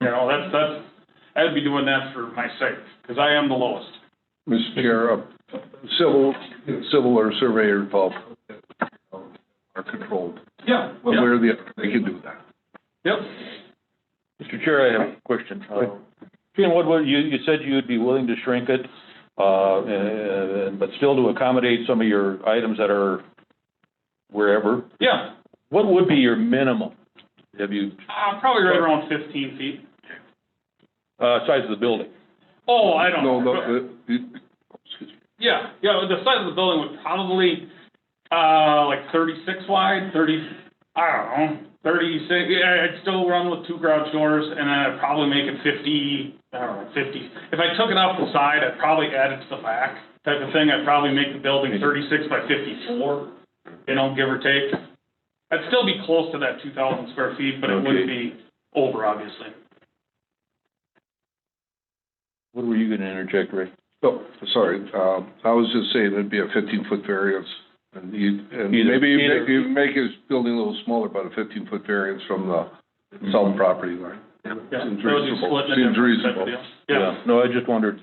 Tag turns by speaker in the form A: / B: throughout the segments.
A: You know, that's, that's, I'd be doing that for my sake, because I am the lowest.
B: Mr. Chair, uh, civil, civil or surveyor involved uh, are controlled.
A: Yeah.
B: One way or the other, they can do that.
A: Yep.
C: Mr. Chair, I have a question. Uh, Gene Woodward, you, you said you'd be willing to shrink it, uh, and- but still to accommodate some of your items that are wherever.
A: Yeah,
C: What would be your minimum? Have you,
A: uh, probably right around fifteen feet.
C: uh, size of the building?
A: Oh, I don't.
B: No, uh, no, the- the- excuse me.
A: Yeah, yeah, the size of the building would probably, uh, like thirty-six wide, thirty, I don't know, thirty-six, yeah, I'd still run with two garage doors, and then I'd probably make it fifty, I don't know, fifty. If I took it off the side, I'd probably add it to the back type of thing, I'd probably make the building thirty-six by fifty-four, you know, give or take. I'd still be close to that two thousand square feet, but it wouldn't be over, obviously.
C: What were you gonna interject, Ray?
B: Oh, sorry, um, I was just saying it'd be a fifteen-foot variance. And you, and
C: Either-
B: maybe you
C: either-
B: make, you make his building a little smaller, about a fifteen-foot variance from the south property line.
A: Yeah,
B: Seems
A: that would be
B: reasonable.
A: splitting it
B: Seems
A: different type
B: reasonable.
A: of deal. Yeah,
C: No, I just wondered,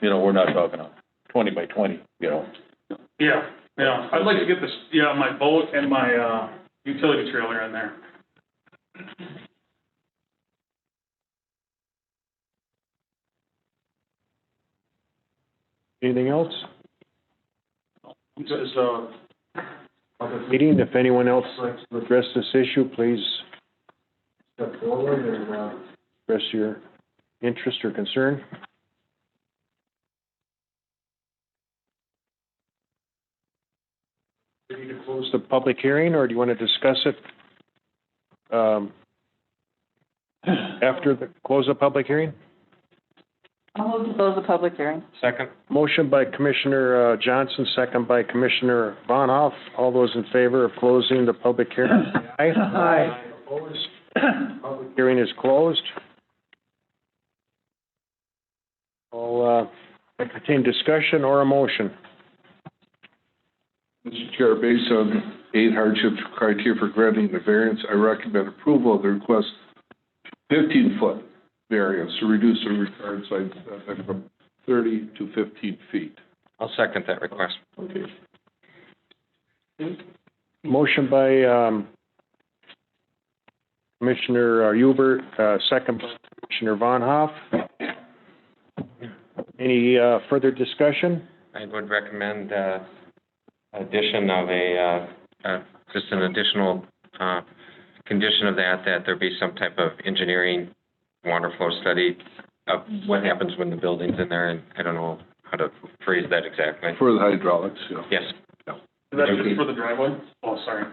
C: you know, we're not talking a twenty by twenty, you know?
A: Yeah, yeah, I'd like to get this, yeah, my boat and my, uh, utility trailer in there.
D: Anything else?
A: This is, uh,
D: Meeting, if anyone else wants to address this issue, please step forward and, uh, express your interest or concern. Do you need to close the public hearing, or do you want to discuss it, um, after the, close the public hearing?
E: I'll move to close the public hearing.
A: Second.
D: Motion by Commissioner uh, Johnson, second by Commissioner Von Hoff. All those in favor of closing the public hearing, say aye. Aye. Opposed? Public hearing is closed. I'll uh, entertain discussion or a motion.
B: Mr. Chair, based on eight hardship criteria for granting the variance, I recommend approval of the request fifteen-foot variance to reduce the required side setback from thirty to fifteen feet.
F: I'll second that request.
B: Okay.
D: Motion by um, Commissioner uh, Hubert, uh, second by Commissioner Von Hoff. Any uh, further discussion?
F: I would recommend, uh, addition of a, uh, uh, just an additional, uh, condition of that, that there be some type of engineering water flow study of what happens when the building's in there, and I don't know how to phrase that exactly.
B: For the hydraulics, yeah.
F: Yes,
A: Is that just for the driveway? Oh, sorry.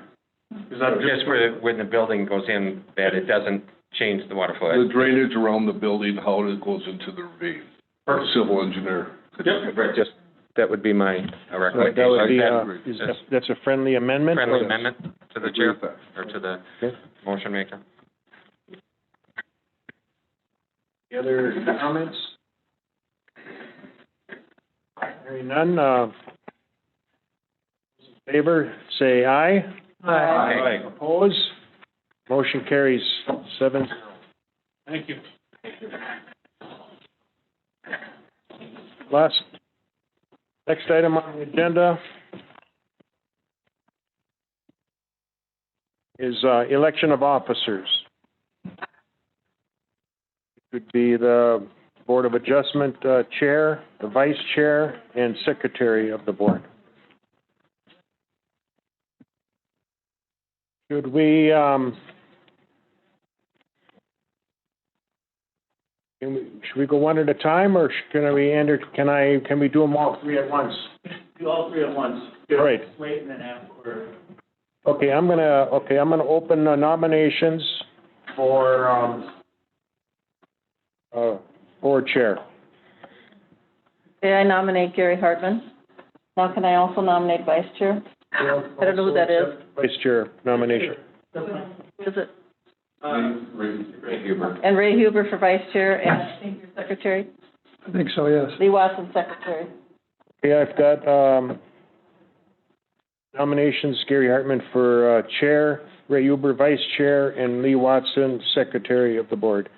A: Is that just?
F: just where, when the building goes in, that it doesn't change the water flow.
B: The drainage around the building, how it goes into the ravine.
A: Perfect.
B: Civil engineer.
A: Yep.
F: Right, just, that would be my uh, recommendation.
D: That would be,
B: that
D: uh,
B: agree.
D: is that- that's a friendly amendment?
F: Friendly amendment to the
B: Agree
F: chair,
B: with that.
F: or to the
D: Okay.
F: motion maker.
D: Any other comments? Hearing none, uh, in favor, say aye.
E: Aye.
D: Oppose? Motion carries seven.
A: Thank you.
D: Last, next item on the agenda is, uh, election of officers. It would be the Board of Adjustment, uh, Chair, the Vice Chair, and Secretary of the Board. Should we, um, can we, should we go one at a time, or sh- can we, enter- can I, can we do them all three at once?
G: Do all three at once.
D: All right.
G: Wait and then after.
D: Okay, I'm gonna, okay, I'm gonna open uh, nominations for, um, uh, for chair.
E: Okay, I nominate Gary Hartman. Now can I also nominate vice chair? I don't know who that is.
D: Vice chair nomination.
E: Who is it?
G: Uh,
F: Huber.
E: And Ray Huber for vice chair and I think you're secretary?
B: I think so, yes.
E: Lee Watson, secretary.
D: Okay, I've got, um, nominations, Gary Hartman for, uh, chair, Ray Uber, vice chair, and Lee Watson, secretary of the board.